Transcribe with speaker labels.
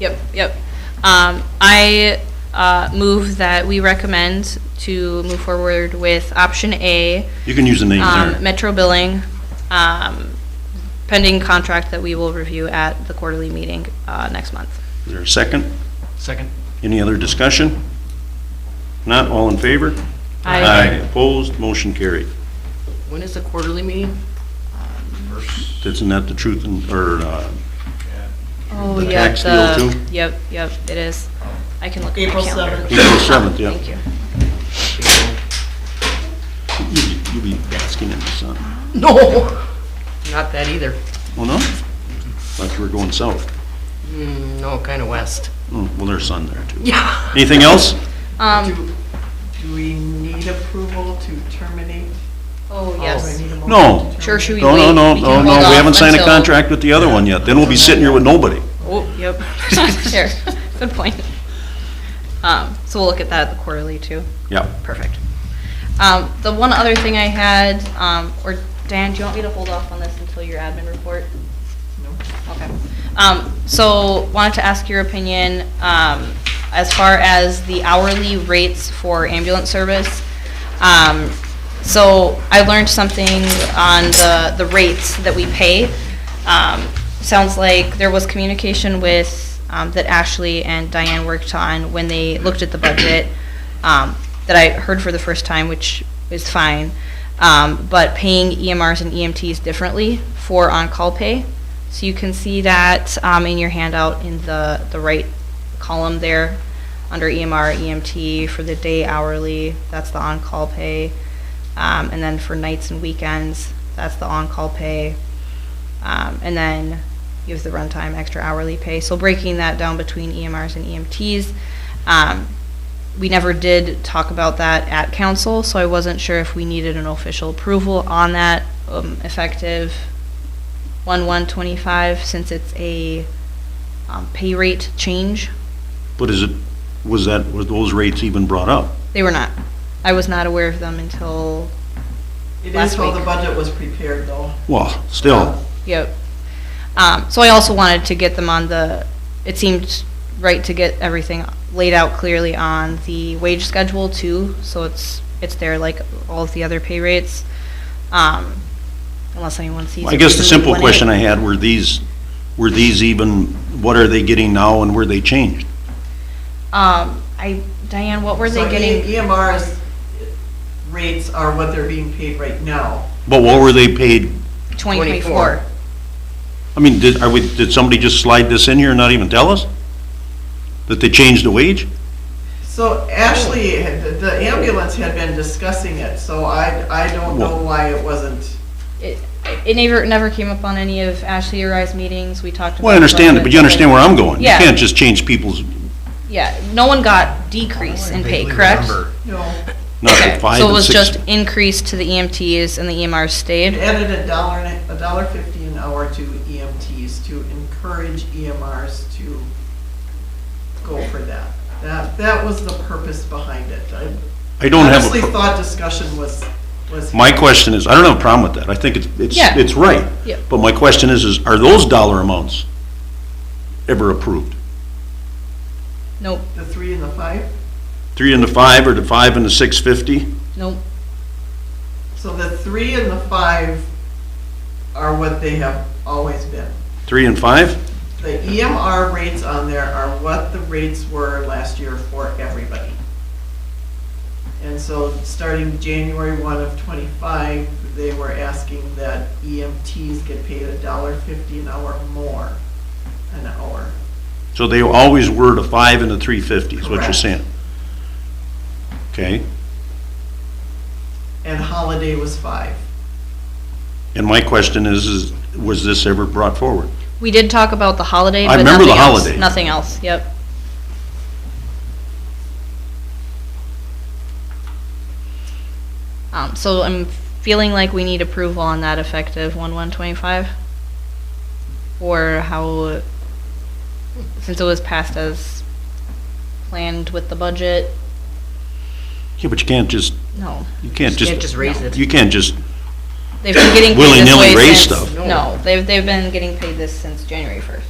Speaker 1: Yep, yep. Um, I uh, move that we recommend to move forward with option A,
Speaker 2: You can use the name
Speaker 1: um,
Speaker 2: there.
Speaker 1: Metro Billing, um, pending contract that we will review at the quarterly meeting uh, next month.
Speaker 2: Is there a second?
Speaker 3: Second.
Speaker 2: Any other discussion? Not all in favor?
Speaker 1: Aye.
Speaker 2: Opposed, motion carried.
Speaker 4: When is the quarterly meeting?
Speaker 2: Isn't that the truth and, or, uh,
Speaker 1: Oh,
Speaker 2: The yeah, tax deal the- too?
Speaker 1: Yep, yep, it is. I can look at my
Speaker 4: April
Speaker 1: calendar.
Speaker 4: 7th.
Speaker 2: April seventh, yeah.
Speaker 1: Thank you.
Speaker 2: You- You be basking in the sun.
Speaker 4: No. Not that either.
Speaker 2: Well, Oh, no? Thought you were going south.
Speaker 4: Mm, No, kind of west.
Speaker 2: Mm, Well, there's sun there too.
Speaker 4: Yeah.
Speaker 2: Anything else?
Speaker 1: Um,
Speaker 5: Do do we need approval to terminate?
Speaker 1: oh,
Speaker 5: Oh,
Speaker 1: yes.
Speaker 5: we need a motion
Speaker 2: No.
Speaker 5: to
Speaker 1: Sure, should we
Speaker 2: No,
Speaker 1: wait?
Speaker 2: no, no,
Speaker 1: We can
Speaker 2: no, no,
Speaker 1: hold
Speaker 2: we
Speaker 1: off
Speaker 2: haven't signed a
Speaker 1: until-
Speaker 2: contract with the other one yet. Then we'll be sitting here with nobody.
Speaker 1: Oh, yep. Sure, good point. Um, so we'll look at that at the quarterly too.
Speaker 2: Yeah.
Speaker 1: Perfect. Um, the one other thing I had, um, or Dan, do you want me to hold off on this until your admin report?
Speaker 5: terminate? No?
Speaker 1: Okay. Um, so wanted to ask your opinion, um, as far as the hourly rates for ambulance service. Um, so I learned something on the, the rates that we pay. Um, sounds like there was communication with, um, that Ashley and Diane worked on when they looked at the budget, um, that I heard for the first time, which is fine. Um, but paying EMRs and EMTs differently for on-call pay. So you can see that um, in your handout in the, the right column there, under E EMR, EMT, for the day hourly, that's the on-call pay. Um, And then for nights and weekends, that's the on-call pay. Um, And then you have the runtime, extra hourly pay. So breaking that down between EMRs and EMTs. um, We never did talk about that at council, so I wasn't sure if we needed an official approval on that um, effective 1/125 since it's a um, pay rate change.
Speaker 2: But is it, was that, was those rates even brought up?
Speaker 1: They were not. I was not aware of them until,
Speaker 5: It
Speaker 1: Last
Speaker 5: is how the
Speaker 1: week.
Speaker 5: budget was prepared, though.
Speaker 2: Well, still,
Speaker 1: yep. Um, So I also wanted to get them on the, it seemed right to get everything laid out clearly on the wage schedule too, so it's, it's there like all of the other pay rates. Um, Unless anyone sees.
Speaker 2: I
Speaker 1: a
Speaker 2: guess the
Speaker 1: reason we
Speaker 2: simple
Speaker 1: wanted it.
Speaker 2: question I had, were these, were these even, what are they getting now and were they changed?
Speaker 1: Um, I, Diane, what were they
Speaker 5: So E-
Speaker 1: getting?
Speaker 5: EMR's rates are what they're being paid right now.
Speaker 2: But what were they paid?
Speaker 1: 2024.
Speaker 2: I mean, did, are we, did somebody just slide this in here and not even tell us? That they changed the wage?
Speaker 5: So Ashley,
Speaker 1: Oh.
Speaker 5: had- the- the ambulance had been discussing it, so I, I don't know
Speaker 2: Well-
Speaker 5: why it wasn't.
Speaker 1: It, it never, never came up on any of Ashley or I's meetings, we talked about.
Speaker 2: Well, I understand it, but you understand where I'm going. You
Speaker 1: Yeah.
Speaker 2: can't just change people's,
Speaker 1: Yeah, no one got decrease in pay, correct?
Speaker 5: No,
Speaker 2: not
Speaker 1: Okay,
Speaker 2: at five
Speaker 1: So it
Speaker 2: and
Speaker 1: was
Speaker 2: six.
Speaker 1: just increase to the EMTs and the EMRs
Speaker 5: it
Speaker 1: stayed?
Speaker 5: added a dollar, and a a dollar fifty an hour to EMTs to encourage EMRs to go for that. That, that was the purpose behind it. I
Speaker 2: I don't have,
Speaker 5: Honestly,
Speaker 2: a pro-
Speaker 5: thought discussion was, was.
Speaker 2: my question is, I don't have a problem with that. I think it's, it's,
Speaker 1: Yeah.
Speaker 2: it's right.
Speaker 1: Yeah.
Speaker 2: But my question is, is are those dollar amounts ever approved?
Speaker 1: Nope,
Speaker 5: The three and the five,
Speaker 2: Three and the five or the five and the six fifty?
Speaker 1: nope.
Speaker 5: so the three and the five are what they have always been.
Speaker 2: Three and five?
Speaker 5: The EMR rates on there are what the rates were last year for everybody. And so, starting January one of twenty-five, they were asking that EMTs get paid a dollar fifty an hour more, an hour.
Speaker 2: So they always were the five and the three fifty, is what you're
Speaker 5: Correct.
Speaker 2: saying? Okay,
Speaker 5: And holiday was five.
Speaker 2: and my question is, is, was this ever brought forward?
Speaker 1: We did talk about the holiday,
Speaker 2: I
Speaker 1: but
Speaker 2: remember the
Speaker 1: nothing else.
Speaker 2: holiday.
Speaker 1: Nothing else, yep. Um, so I'm feeling like we need approval on that effective one one twenty-five? Or how, since it was passed as planned with the budget,
Speaker 2: Yeah, but you can't just,
Speaker 1: no.
Speaker 2: you can't
Speaker 4: You can't just
Speaker 2: just,
Speaker 4: raise it.
Speaker 2: you can't just,
Speaker 1: They've been getting paid this
Speaker 2: Willy-nilly
Speaker 1: way
Speaker 2: raise
Speaker 1: since-
Speaker 2: stuff.
Speaker 1: No, they've, they've been getting paid this since January first.